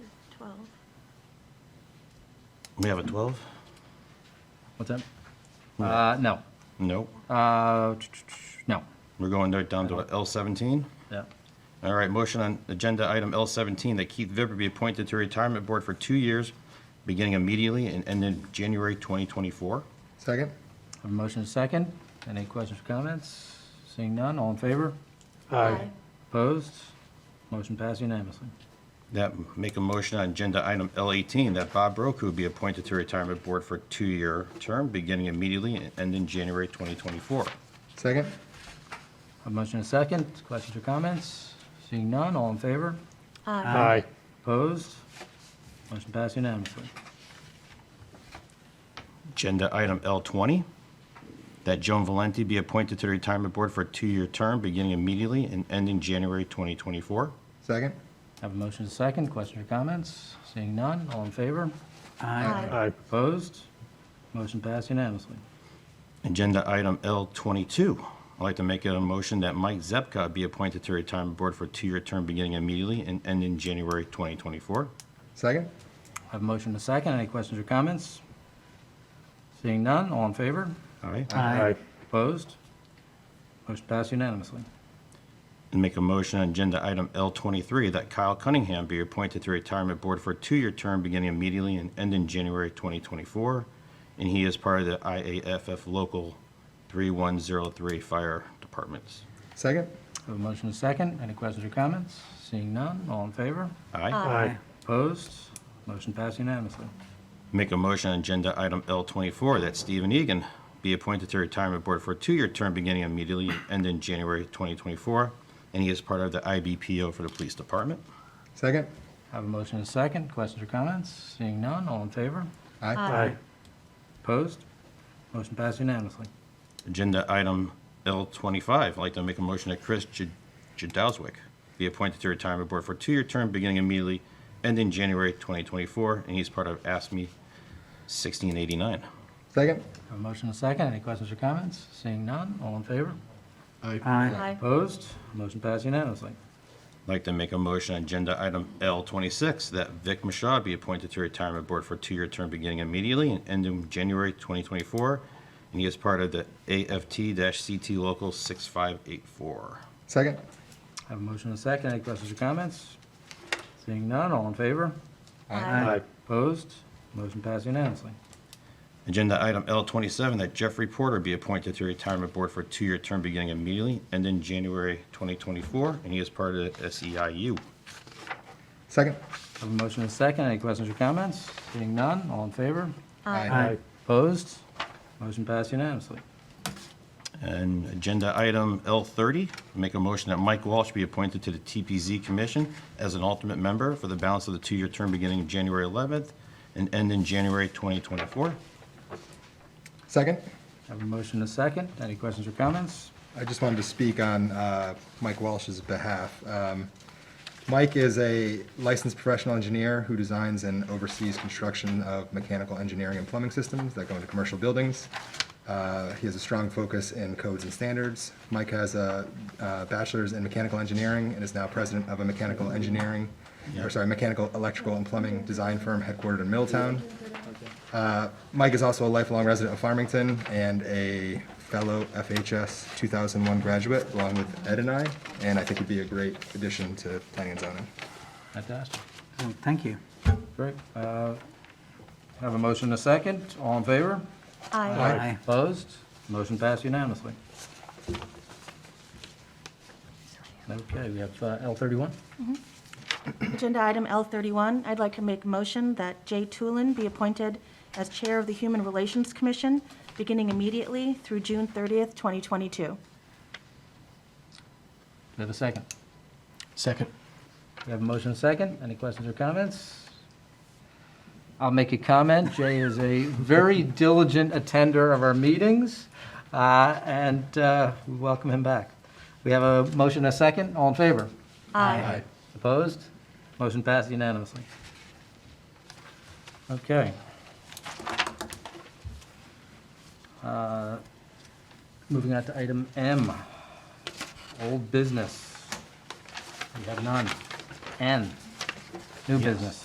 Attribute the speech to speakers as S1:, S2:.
S1: 12.
S2: We have a 12?
S3: What's that? Uh, no.
S2: Nope.
S3: Uh, no.
S2: We're going right down to L17.
S3: Yeah.
S2: All right, motion on agenda item L17 that Keith Vibber be appointed to retirement board for two years, beginning immediately and ending January 2024.
S4: Second?
S3: Have a motion and a second. Any questions or comments? Seeing none, all in favor? Opposed? Motion passed unanimously.
S2: That, make a motion on agenda item L18 that Bob Broku be appointed to retirement board for two-year term, beginning immediately and ending January 2024.
S4: Second?
S3: Have a motion and a second. Questions or comments? Seeing none, all in favor?
S1: Aye.
S5: Aye.
S3: Opposed? Motion passed unanimously.
S2: Agenda item L20, that Joan Valenti be appointed to the retirement board for a two-year term, beginning immediately and ending January 2024.
S4: Second?
S3: Have a motion and a second. Questions or comments? Seeing none, all in favor?
S1: Aye.
S5: Aye.
S3: Opposed? Motion passed unanimously.
S2: Agenda item L22, I'd like to make a motion that Mike Zepka be appointed to retirement board for a two-year term, beginning immediately and ending January 2024.
S4: Second?
S3: Have a motion and a second. Any questions or comments? Seeing none, all in favor?
S2: All right?
S5: Aye.
S3: Opposed? Motion passed unanimously.
S2: And make a motion on agenda item L23 that Kyle Cunningham be appointed to retirement board for a two-year term, beginning immediately and ending January 2024. And he is part of the IAFF Local 3103 Fire Departments.
S4: Second?
S3: Have a motion and a second. Any questions or comments? Seeing none, all in favor?
S2: Aye.
S5: Aye.
S3: Opposed? Motion passed unanimously.
S2: Make a motion on agenda item L24 that Stephen Egan be appointed to retirement board for a two-year term, beginning immediately and ending January 2024. And he is part of the IBPO for the Police Department.
S4: Second?
S3: Have a motion and a second. Questions or comments? Seeing none, all in favor?
S4: Aye.
S5: Aye.
S3: Opposed? Motion passed unanimously.
S2: Agenda item L25, I'd like to make a motion that Chris J- Jadowswick be appointed to retirement board for a two-year term beginning immediately, ending January 2024, and he's part of ASME 1689.
S4: Second?
S3: Have a motion and a second. Any questions or comments? Seeing none, all in favor?
S5: Aye.
S1: Aye.
S3: Opposed? Motion passed unanimously.
S2: I'd like to make a motion on agenda item L26, that Vic Mashad be appointed to retirement board for a two-year term beginning immediately and ending January 2024, and he is part of the AFT-CT Local 6584.
S4: Second?
S3: Have a motion and a second. Any questions or comments? Seeing none, all in favor?
S1: Aye.
S3: Opposed? Motion passed unanimously.
S2: Agenda item L27, that Jeffrey Porter be appointed to retirement board for a two-year term beginning immediately and in January 2024, and he is part of the E SEIU.
S4: Second?
S3: Have a motion and a second. Any questions or comments? Seeing none, all in favor?
S5: Aye.
S3: Opposed? Motion passed unanimously.
S2: And agenda item L30, make a motion that Mike Walsh be appointed to the TPZ Commission as an alternate member for the balance of the two-year term beginning January 11th and end in January 2024.
S4: Second?
S3: Have a motion and a second. Any questions or comments?
S4: I just wanted to speak on uh, Mike Welsh's behalf. Um, Mike is a licensed professional engineer who designs and oversees construction of mechanical engineering and plumbing systems that go into commercial buildings. Uh, He has a strong focus in codes and standards. Mike has a uh, bachelor's in mechanical engineering and is now president of a mechanical engineering, or sorry, mechanical, electrical, and plumbing design firm headquartered in Middletown. Uh, Mike is also a lifelong resident of Farmington and a fellow FHS 2001 graduate, along with Ed and I, and I think he'd be a great addition to planning and zoning.
S3: Fantastic.
S5: Well, Thank you.
S3: Great. Uh, Have a motion and a second. All in favor?
S1: Aye.
S5: Aye.
S3: Opposed? Motion passed unanimously. Okay, we have uh, L31.
S1: Agenda item L31, I'd like to make a motion that Jay Tulin be appointed as Chair of the Human Relations Commission, beginning immediately through June 30th, 2022.
S3: We have a second.
S5: Second.
S3: We have a motion and a second. Any questions or comments? I'll make a comment. Jay is a very diligent attender of our meetings, uh, and uh, we welcome him back. We have a motion and a second. All in favor?
S1: Aye.
S3: Opposed? Motion passed unanimously. Okay. Uh, Moving on to item M, old business. We have none. N, new business.